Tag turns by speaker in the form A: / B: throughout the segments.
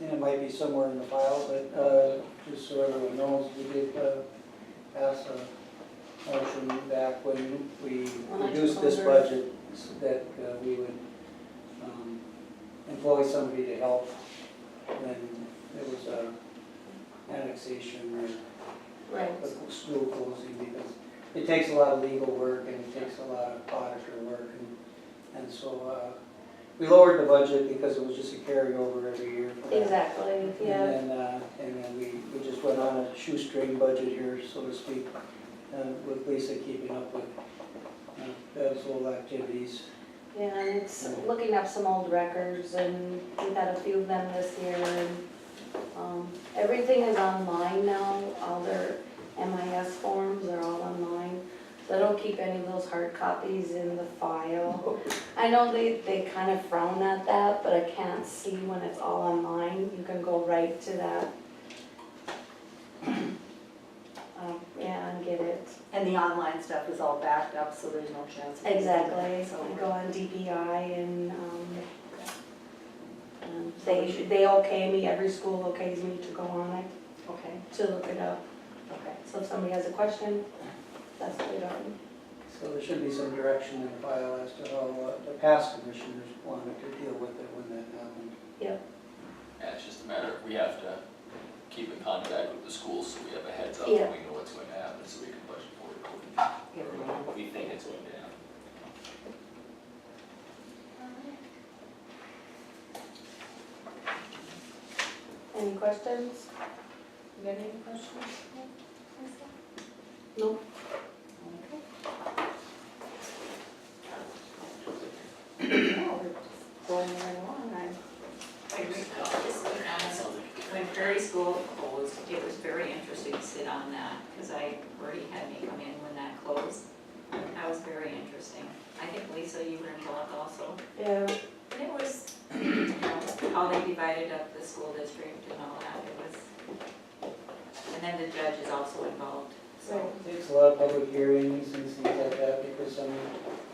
A: and it might be somewhere in the file, but, uh, just so everyone knows, we did, uh, pass a motion back when we
B: When I took
A: reduced this
B: over.
A: budget, s- that uh, we would, um, employ somebody to help when there was a annexation or
B: Right.
A: the school closing because it takes a lot of legal work and it takes a lot of auditor work and, and so, uh, we lowered the budget because it was just a carryover every year. for that.
B: Exactly, yeah.
A: And then, uh, and then we, we just went on a shoestring budget here, so to speak, uh, with Lisa keeping up with, uh, those little activities.
B: And s- looking up some old records, and we've had a few of them this year, and um, everything is online now, all their MIS forms are all online, so I don't keep any of those hard copies in the file. I know they, they kind of frown at that, but I can't see when it's all online, you can go right to that. Um, Yeah, and get it.
C: And the online stuff is all backed up, so there's no chance. of-
B: Exactly,
C: So
B: I
C: we're-
B: go on DPI and, um, um, they, should- they okay me, every school okays me to go on it,
C: Okay,
B: to look it up.
C: okay.
B: So if somebody has a question, that's what it on.
A: So there should be some direction in the file as to how uh, the past commissioners wanted to deal with it when that happened.
D: Yeah, it's just a matter of, we have to keep in contact with the schools so we have a heads up and
B: Yeah.
D: we know what's going to happen, so we can budget for it. accordingly, or what We think it's going to happen.
B: Any questions?
C: You got any questions?
B: No.
C: No,
B: Oh,
C: we're just Going right along, I,
E: I agree with all this, but, um, When Prairie School closed, it was very interesting to sit on that, because I, already had me come in when that closed. That was very interesting. I think Lisa, you were involved also.
B: Yeah,
E: And it was, you know, how they divided up the school district and all that, it was. And then the judge is also involved, so.
A: It takes a lot of public hearings and things like that because some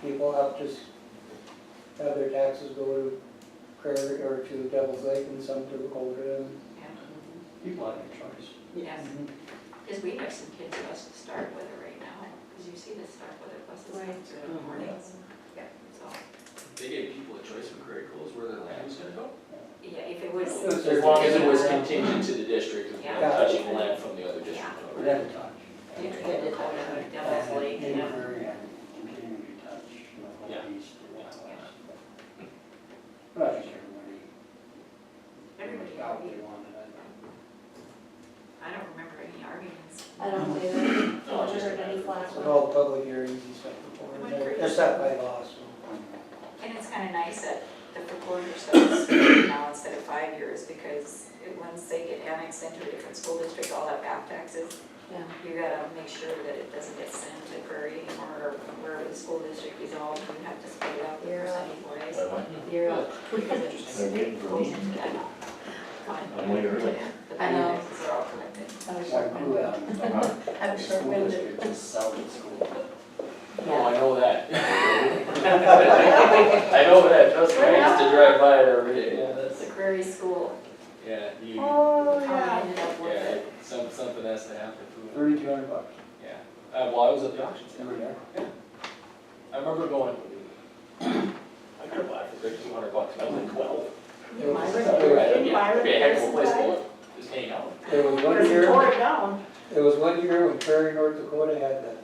A: people have just, have their taxes go to Prairie or to Devil's Lake and some to Golden. and
E: Yeah.
A: People have their choice.
E: Yes, because we have some kids who us to start with it right now, because you see the start with it buses
B: Right.
E: through the mornings. Yeah, so,
D: They gave people a choice when Craig closed where their land was gonna go?
E: yeah, if it was.
A: It was
D: As long as it was
A: Yeah.
D: contingent to the district of not
E: Yeah.
D: touching land from the other district.
A: We never touch.
E: You could get it out of Devil's Lake, you know.
F: Continue to touch, you know,
D: Yeah.
F: what needs to be touched.
A: Right.
F: Because everybody-
E: Everybody
F: felt they
E: argued.
F: wanted it.
E: I don't remember any arguments.
B: I don't either,
D: No,
B: I
D: it's
B: just
D: just a
B: heard any
D: matter of-
B: flash.
A: With all the public hearings and stuff before, they're, they're set by law, so.
E: And it's kind of nice that the proposal says now instead of five years, because it- once they get annexed into a different school district, all that back taxes,
B: Yeah.
E: you gotta make sure that it doesn't get sent to Prairie anymore, or wherever the school district is all, you have to split it up in
B: Yeah.
E: percentage ways.
B: You're up.
E: Because it just
G: They're waiting for
E: goes
G: me.
E: into that fund.
G: I'm way early.
E: The
B: I know.
E: finances are all connected.
B: I was
F: Why
B: short-winded.
F: grew up in the
B: I'm
F: school
B: short-winded.
F: district, just sell the school.
D: No, Oh, I know that. I know that, trust me, I used to drive by it every day, yeah, that's,
E: The Prairie School,
D: yeah, you,
B: Oh,
E: how
B: yeah.
E: they ended up with
D: yeah,
E: it.
D: some, something has to happen to it,
F: Thirty-two hundred bucks,
D: yeah. Uh, well, I was at the auction,
F: you
D: center.
F: were there?
D: I remember going, I could have bought it for two hundred bucks, and I was like twelve.
B: You might
A: It was-
B: remember. Didn't Byron
D: Be a heck of a
B: Pearson
D: place to
B: buy it?
D: live, just hang out.
A: There was one
B: Because he
A: year,
B: tore it down.
A: there was one year when Prairie, North Dakota had the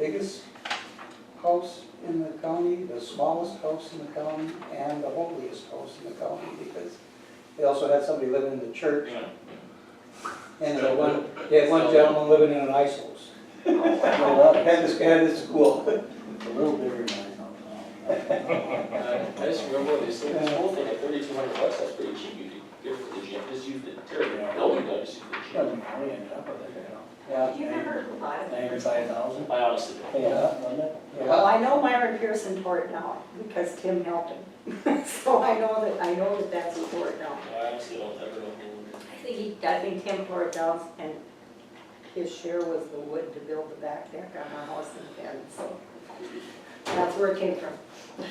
A: biggest house in the county, the smallest house in the county, and the holiest house in the county, because they also had somebody living in the church, and they had one, they had one gentleman living in an ice house. Had this guy at his school.
F: It's a little bigger than I thought.
D: Uh, I just remember when they sold this whole thing at thirty-two hundred bucks, that's pretty cheap, you could give it to the gym, just use the terrible building, though, just use the gym.
F: Doesn't really end up with it, you know.
A: Yeah,
E: You remember a lot of them.
F: Ninety-five thousand,
D: I honestly don't.
F: pay it up, wasn't it?
C: well,
A: yeah.
C: I know Myron Pearson tore it down because Tim helped him. So I know that, I know that that's who tore it down.
D: I honestly don't ever know who.
C: I think he, I think Tim tore it down and his share was the wood to build the back deck on our house and fence, so. That's where it came from.